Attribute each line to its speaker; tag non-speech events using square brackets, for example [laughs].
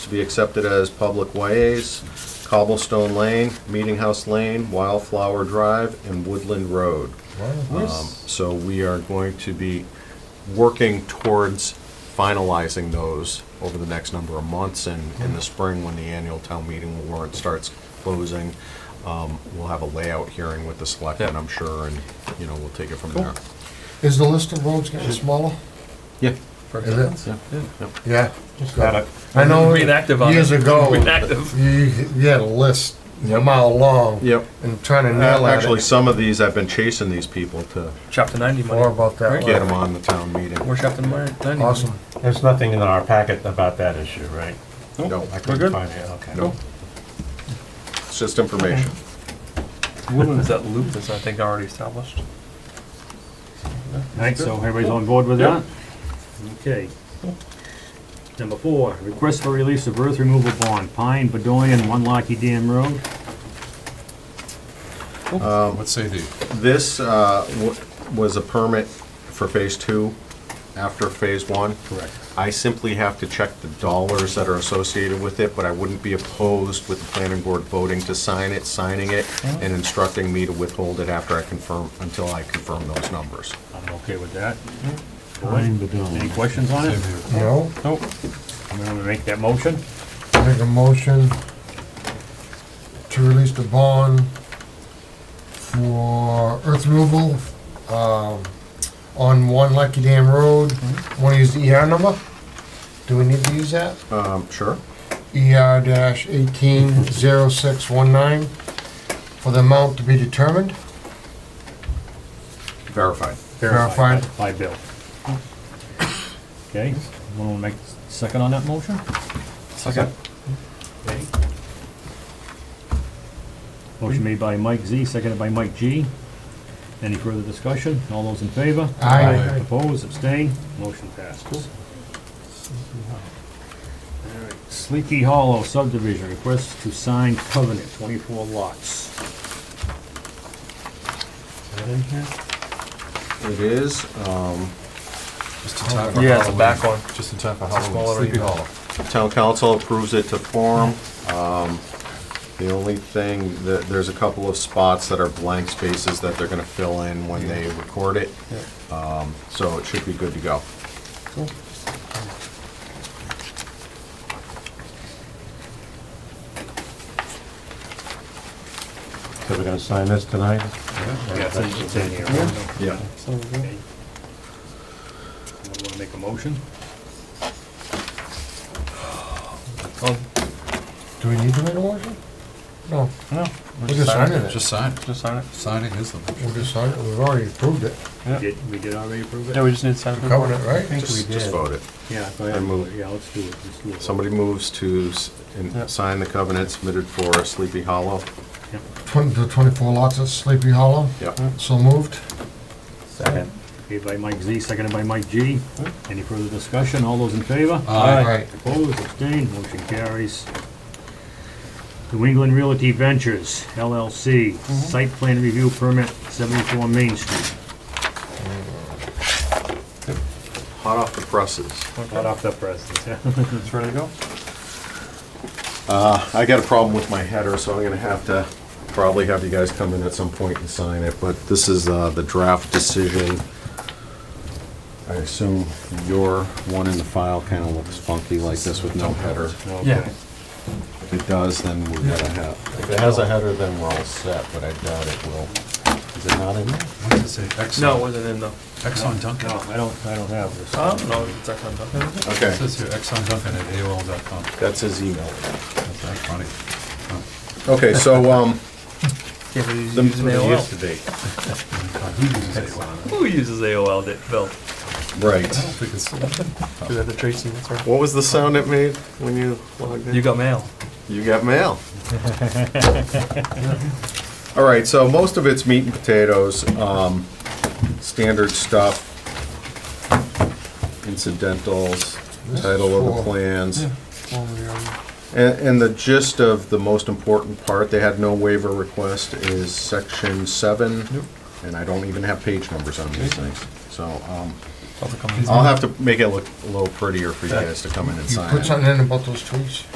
Speaker 1: to be accepted as public ways, Cobblestone Lane, Meeting House Lane, Wildflower Drive, and Woodland Road. Um, So we are going to be working towards finalizing those over the next number of months and in the spring when the annual town meeting warrant starts closing. um, We'll have a layout hearing with the selectmen, I'm sure, and, you know, we'll take it from there.
Speaker 2: Is the list of roads getting smaller?
Speaker 1: Yeah.
Speaker 2: Is it?
Speaker 1: Yeah, yeah.
Speaker 2: Yeah.
Speaker 3: Got it.
Speaker 2: I know
Speaker 4: Being active on it.
Speaker 2: years ago,
Speaker 4: Being active.
Speaker 2: you you had a list a mile long.
Speaker 1: Yep.
Speaker 2: And trying to nail at
Speaker 1: Uh, Actually,
Speaker 2: it.
Speaker 1: some of these, I've been chasing these people to
Speaker 4: Chapter 90
Speaker 2: More
Speaker 4: money.
Speaker 2: about that.
Speaker 4: Right.
Speaker 1: get them
Speaker 2: later.
Speaker 1: on the town meeting.
Speaker 4: We're chapter 90 money.
Speaker 2: Awesome.
Speaker 3: There's nothing in our packet about that issue, right?
Speaker 1: No,
Speaker 3: I
Speaker 4: We're
Speaker 3: couldn't
Speaker 4: good.
Speaker 3: find it, okay.
Speaker 1: no. It's just information.
Speaker 4: Woodland's that loop that's, I think, already established.
Speaker 5: Right, so everybody's on board with that? Okay. Number four, request for release of earth removal bond, Pine, Bedoyan, One Lucky Dam Road.
Speaker 6: What's AD?
Speaker 1: This uh, w- was a permit for Phase Two after Phase One. Correct. I simply have to check the dollars that are associated with it, but I wouldn't be opposed with the planning board voting to sign it, signing it, and instructing me to withhold it after I confirm, until I confirm those numbers.
Speaker 5: I'm okay with that. Any questions on it?
Speaker 2: No,
Speaker 5: Nope. I'm gonna make that motion.
Speaker 2: make a motion to release the bond for earth removal, um, on one Lucky Dam Road. Want to use the ER number? Do we need to use that?
Speaker 1: Um, Sure?
Speaker 2: ER dash eighteen zero six one nine for the amount to be determined.
Speaker 1: Verified.
Speaker 2: Verified.
Speaker 5: By Bill. Okay, wanna make second on that motion?
Speaker 1: Second.
Speaker 5: Okay. Motion made by Mike Z, seconded by Mike G. Any further discussion? All those in favor?
Speaker 2: Aye.
Speaker 5: Opposed, abstained, motion passes. Alright, Sleepy Hollow subdivision, request to sign covenant, twenty-four lots.
Speaker 1: It is. um,
Speaker 6: Just in time for
Speaker 4: Yeah, it's a
Speaker 6: Halloween.
Speaker 4: back one.
Speaker 6: Just in time for
Speaker 4: smaller
Speaker 6: Halloween, Sleepy
Speaker 4: unit.
Speaker 6: Hollow.
Speaker 1: Town council approves it to form. Um, The only thing, that there's a couple of spots that are blank spaces that they're going to fill in when they record it. Um, So it should be good to go.
Speaker 3: So we're gonna sign this tonight?
Speaker 5: Yes, it's in here. I
Speaker 1: Yeah.
Speaker 5: wanna make a motion.
Speaker 4: Oh,
Speaker 2: Do we need to make a motion? No,
Speaker 4: no.
Speaker 2: we're just signing it.
Speaker 6: Just sign,
Speaker 4: Just sign it.
Speaker 6: signing is the.
Speaker 2: We're just signing, it. we've already approved it,
Speaker 4: Yeah.
Speaker 5: Did, we did already approve it?
Speaker 4: Yeah, we just need to sign it.
Speaker 2: covering it, right?
Speaker 1: Just just vote it.
Speaker 5: Yeah, go
Speaker 1: I
Speaker 5: ahead,
Speaker 1: move.
Speaker 5: yeah, let's do it, let's do it.
Speaker 1: Somebody moves to s- and
Speaker 4: Yeah.
Speaker 1: sign the covenant submitted for Sleepy Hollow.
Speaker 2: Twenty, the twenty-four lots at Sleepy Hollow,
Speaker 1: Yep.
Speaker 2: so moved.
Speaker 3: Second.
Speaker 5: Made by Mike Z, seconded by Mike G. Any further discussion? All those in favor?
Speaker 2: All right.
Speaker 5: Opposed, abstained, motion carries. New England Realty Ventures LLC, site plan review permit, 74 Main Street.
Speaker 1: Hot off the presses.
Speaker 5: Hot off the presses.
Speaker 4: It's ready to go.
Speaker 1: I got a problem with my header, so I'm gonna have to probably have you guys come in at some point and sign it, but this is uh, the draft decision. I assume your one in the file kinda looks funky like this with no header.
Speaker 4: Yeah.
Speaker 1: If it does, then we're gonna have, if it has a header, then we're all set, but I doubt it will. Is it not in there?
Speaker 6: What does it say? Exxon-
Speaker 4: No, it wasn't in though.
Speaker 6: Exxon Duncan.
Speaker 5: No, I don't, I don't have this.
Speaker 4: I don't know if it's actually done.
Speaker 1: Okay,
Speaker 6: It says here Exxon Duncan at AOL.com.
Speaker 1: that's his email.
Speaker 6: That's that's funny.
Speaker 1: Okay, so, um,
Speaker 4: Yeah, but he's
Speaker 1: the-
Speaker 4: using AOL.
Speaker 6: God, Who uses AOL?
Speaker 4: Who uses AOL, Dick? Bill?
Speaker 6: I don't
Speaker 1: right.
Speaker 6: think it's,
Speaker 4: Do that the Tracy, that's right.
Speaker 1: What was the sound it made when you logged in?
Speaker 4: You got mail.
Speaker 1: You got mail. [laughs] All right, so most of it's meat and potatoes, um, standard stuff, incidentals, title of the
Speaker 2: Sure.
Speaker 1: plans.
Speaker 2: Over there.
Speaker 1: And, and the gist of the most important part, they had no waiver request, is section seven. And I don't even have page numbers on these things, so, um, I'll have to make it look a little prettier for you guys to come in and
Speaker 2: You
Speaker 1: sign.
Speaker 2: put something in about those trees?